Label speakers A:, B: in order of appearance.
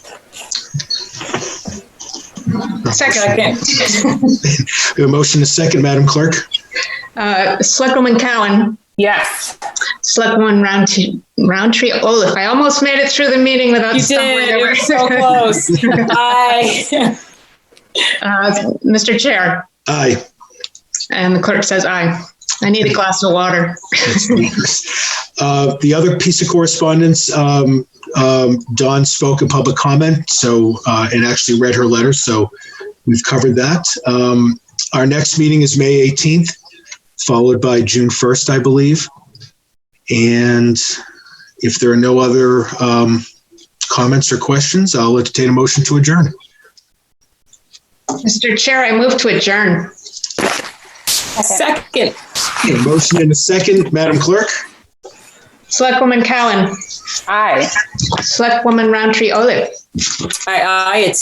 A: Second, I can't.
B: We have a motion and a second, Madam Clerk.
A: Uh, Selectwoman Cowan,
C: Yes.
A: Selectwoman Roundtree, Roundtree Olaf. I almost made it through the meeting without
C: You
A: stumbling
C: did. It
A: over.
C: was so close. Aye.
A: Uh, Mr. Chair,
B: Aye.
A: and the clerk says aye. I need a glass of water.
B: Uh, The other piece of correspondence, um, um, Dawn spoke in public comment, so, uh, and actually read her letter, so we've covered that. Um, Our next meeting is May 18th, followed by June 1st, I believe. And if there are no other um, comments or questions, I'll entertain a motion to adjourn.
A: Mr. Chair, I move to adjourn.
C: Second.
B: A motion and a second, Madam Clerk?
A: Selectwoman Cowan,
C: Aye.
A: Selectwoman Roundtree Olaf.
C: Aye, aye. It's